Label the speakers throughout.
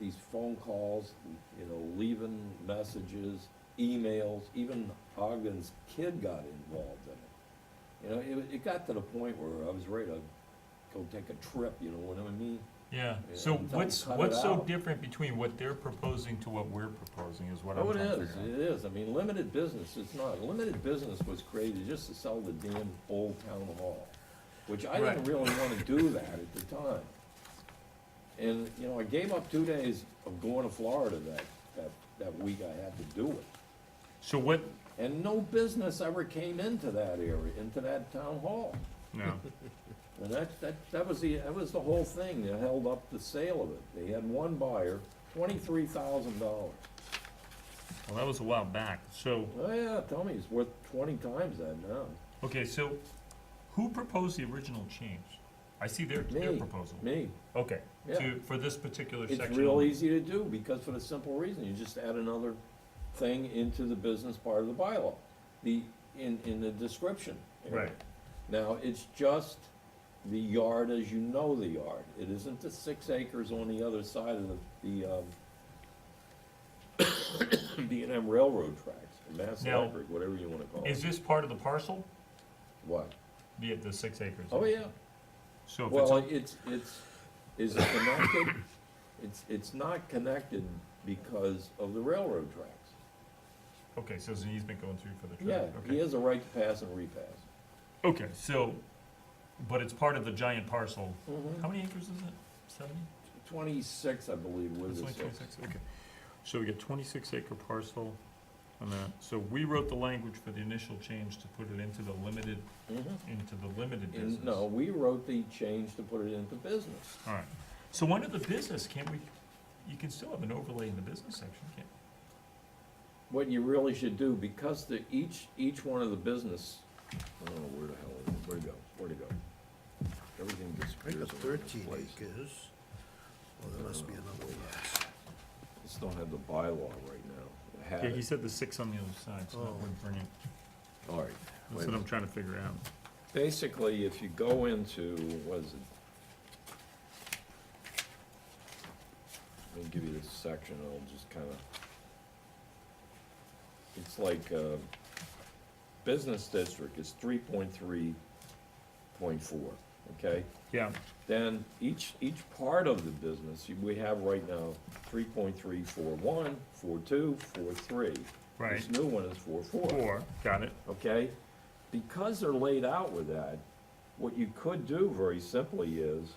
Speaker 1: these phone calls, you know, leaving messages, emails, even Ogden's kid got involved in it. You know, it, wa- it got to the point where I was ready to go take a trip, you know what I mean?
Speaker 2: Yeah,
Speaker 1: Yeah,
Speaker 2: so
Speaker 1: I'm telling you,
Speaker 2: what's,
Speaker 1: cut it
Speaker 2: what's so
Speaker 1: out.
Speaker 2: different between what they're proposing to what we're proposing is what I'm
Speaker 1: Oh, it
Speaker 2: trying to
Speaker 1: is,
Speaker 2: figure
Speaker 1: it
Speaker 2: out.
Speaker 1: is, I mean, limited business, it's not, limited business was created just to sell the damn old town hall, which I didn't
Speaker 2: Right.
Speaker 1: really wanna do that at the time. And, you know, I gave up two days of going to Florida that, that, that week I had to do it.
Speaker 2: So what,
Speaker 1: And no business ever came into that area, into that town hall.
Speaker 2: no,
Speaker 1: And that, that, that was the, that was the whole thing that held up the sale of it. They had one buyer, twenty-three thousand dollars.
Speaker 2: well, that was a while back, so,
Speaker 1: Oh yeah, tell me, it's worth twenty times that now.
Speaker 2: okay, so who proposed the original change? I see their, their
Speaker 1: Me.
Speaker 2: proposal.
Speaker 1: Me,
Speaker 2: Okay,
Speaker 1: yeah.
Speaker 2: to, for this particular section.
Speaker 1: It's real
Speaker 2: only.
Speaker 1: easy to do because for the simple reason, you just add another thing into the business part of the bylaw. The, in, in the description. area.
Speaker 2: Right,
Speaker 1: Now, it's just the yard as you know the yard. It isn't the six acres on the other side of the, the, um, B and M railroad tracks, or Mass
Speaker 2: Now,
Speaker 1: Electric, whatever you wanna call
Speaker 2: is
Speaker 1: it.
Speaker 2: this part of the parcel,
Speaker 1: What?
Speaker 2: the, the six acres?
Speaker 1: Oh, yeah.
Speaker 2: So if it's,
Speaker 1: Well,
Speaker 2: a-
Speaker 1: it's, it's, is it connected? It's, it's not connected because of the railroad tracks.
Speaker 2: okay, so there's an easement going through for the
Speaker 1: Yeah,
Speaker 2: traffic,
Speaker 1: he
Speaker 2: okay.
Speaker 1: has a right to pass and repass.
Speaker 2: Okay, so, but it's part of the giant parcel,
Speaker 1: Mhm.
Speaker 2: how many acres is it? Seventy?
Speaker 1: Twenty-six, I believe, was
Speaker 2: It's
Speaker 1: the
Speaker 2: only
Speaker 1: six.
Speaker 2: twenty-six, okay. So we got twenty-six acre parcel on that. So we wrote the language for the initial change to put it into the limited,
Speaker 1: Mhm.
Speaker 2: into the limited business.
Speaker 1: And, no, we wrote the change to put it into business.
Speaker 2: All right. So under the business, can't we, you can still have an overlay in the business section, can't?
Speaker 1: what you really should do, because the, each, each one of the business, I don't know where the hell it is, where'd it go, where'd it go? Everything
Speaker 3: I
Speaker 1: disappears
Speaker 3: got
Speaker 1: all over the
Speaker 3: thirteen
Speaker 1: place. Uh,
Speaker 3: acres. Well, there must be another one.
Speaker 1: Just don't have the bylaw right now, I have
Speaker 2: Yeah, he
Speaker 1: it,
Speaker 2: said the six on the other side, so that
Speaker 3: Oh.
Speaker 2: would bring it,
Speaker 1: all right. wait
Speaker 2: that's
Speaker 1: a
Speaker 2: what I'm
Speaker 1: minute.
Speaker 2: trying to figure out.
Speaker 1: Basically, if you go into, what is it? Let me give you this section, I'll just kinda. It's like, uh, business district is three point three point four, okay?
Speaker 2: Yeah,
Speaker 1: Then each, each part of the business, you- we have right now three point three, four one, four two, four three.
Speaker 2: right.
Speaker 1: This new one is four
Speaker 2: Four, got it.
Speaker 1: okay? Because they're laid out with that, what you could do very simply is,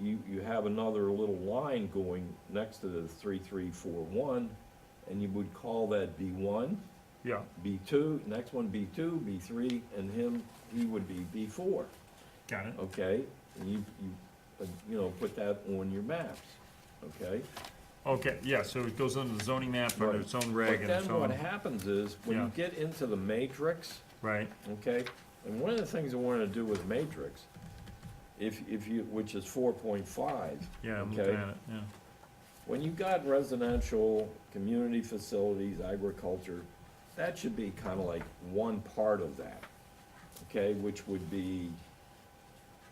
Speaker 1: you, you have another little line going next to the three, three, four, one, and you would call that B one,
Speaker 2: Yeah,
Speaker 1: B two, next one B two, B three, and him, he would be B four,
Speaker 2: got it.
Speaker 1: okay? And you, you, uh, you know, put that on your maps, okay?
Speaker 2: Okay, yeah, so it goes under the zoning map, under
Speaker 1: Right.
Speaker 2: its own reg
Speaker 1: But
Speaker 2: and its
Speaker 1: then what
Speaker 2: own,
Speaker 1: happens is, when you get into the matrix,
Speaker 2: right,
Speaker 1: okay? And one of the things I wanted to do with matrix, if, if you, which is four point five.
Speaker 2: yeah, I'm looking
Speaker 1: okay.
Speaker 2: at it, yeah.
Speaker 1: When you got residential, community facilities, agriculture, that should be kinda like one part of that, okay, which would be,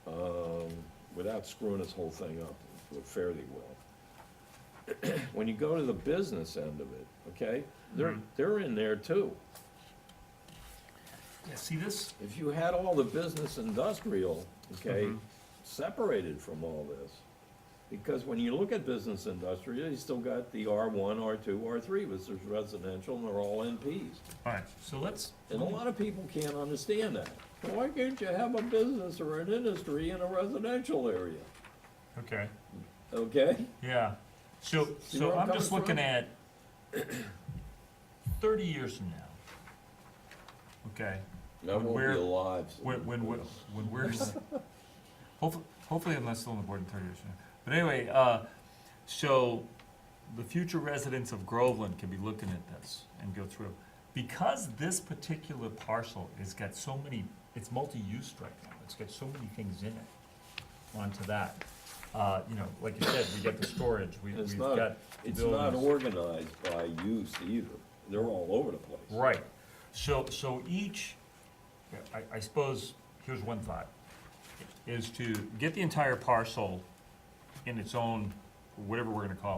Speaker 1: um, without screwing this whole thing up, but fairly well. When you go to the business end of it, okay, they're,
Speaker 2: Mhm.
Speaker 1: they're in there too.
Speaker 2: Yeah, see this?
Speaker 1: If you had all the business industrial, okay,
Speaker 2: Mhm.
Speaker 1: separated from all this, because when you look at business industrial, you still got the R one, R two, R three, which is residential, and they're all NPs.
Speaker 2: All right, so let's.
Speaker 1: And a lot of people can't understand that. Why can't you have a business or an industry in a residential area,
Speaker 2: Okay.
Speaker 1: okay?
Speaker 2: Yeah, so,
Speaker 1: See
Speaker 2: so
Speaker 1: where I'm
Speaker 2: I'm just
Speaker 1: coming
Speaker 2: looking
Speaker 1: from?
Speaker 2: at thirty years from now. Okay,
Speaker 1: That won't
Speaker 2: Where-
Speaker 1: be alive. so-
Speaker 2: when, when, we're- when we're, s- hopefully, hopefully I'm not still on the board in thirty years from now. But anyway, uh, so the future residents of Groveland can be looking at this and go through. Because this particular parcel has got so many, it's multi-use right now, it's got so many things in it onto that. Uh, you know, like you said, we got the storage, we,
Speaker 1: It's
Speaker 2: we've got
Speaker 1: not, it's not
Speaker 2: buildings.
Speaker 1: organized by use either. They're all over the place.
Speaker 2: Right, so, so each, I, I suppose, here's one thought, is to get the entire parcel in its own, whatever we're gonna call it.